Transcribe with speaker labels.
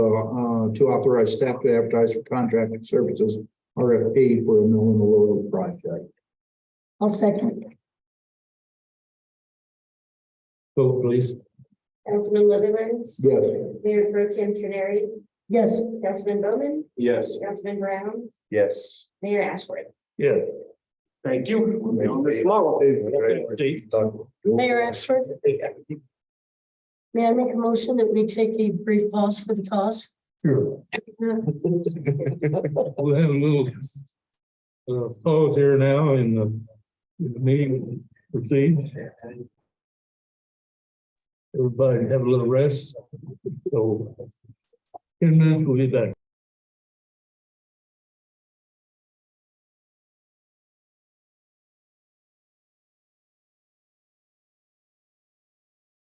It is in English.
Speaker 1: uh, to authorize staff to advertise for contracted services, RFP for a mill and a load project.
Speaker 2: I'll second.
Speaker 3: Vote please.
Speaker 4: Councilman Liverlands?
Speaker 1: Yes.
Speaker 4: Mayor Pro Tem Tenary,
Speaker 2: Yes,
Speaker 4: Councilman Bowman,
Speaker 3: Yes.
Speaker 4: Councilman Brown,
Speaker 5: Yes.
Speaker 4: Mayor Ashford.
Speaker 3: Yeah. Thank you. We'll be on this tomorrow. Dave.
Speaker 2: Mayor Ashford, may I make a motion that we take a brief pause for the cause?
Speaker 3: Sure. We'll have a little uh, pause here now in the in the meeting proceed. Everybody have a little rest. So in minutes, we'll be back.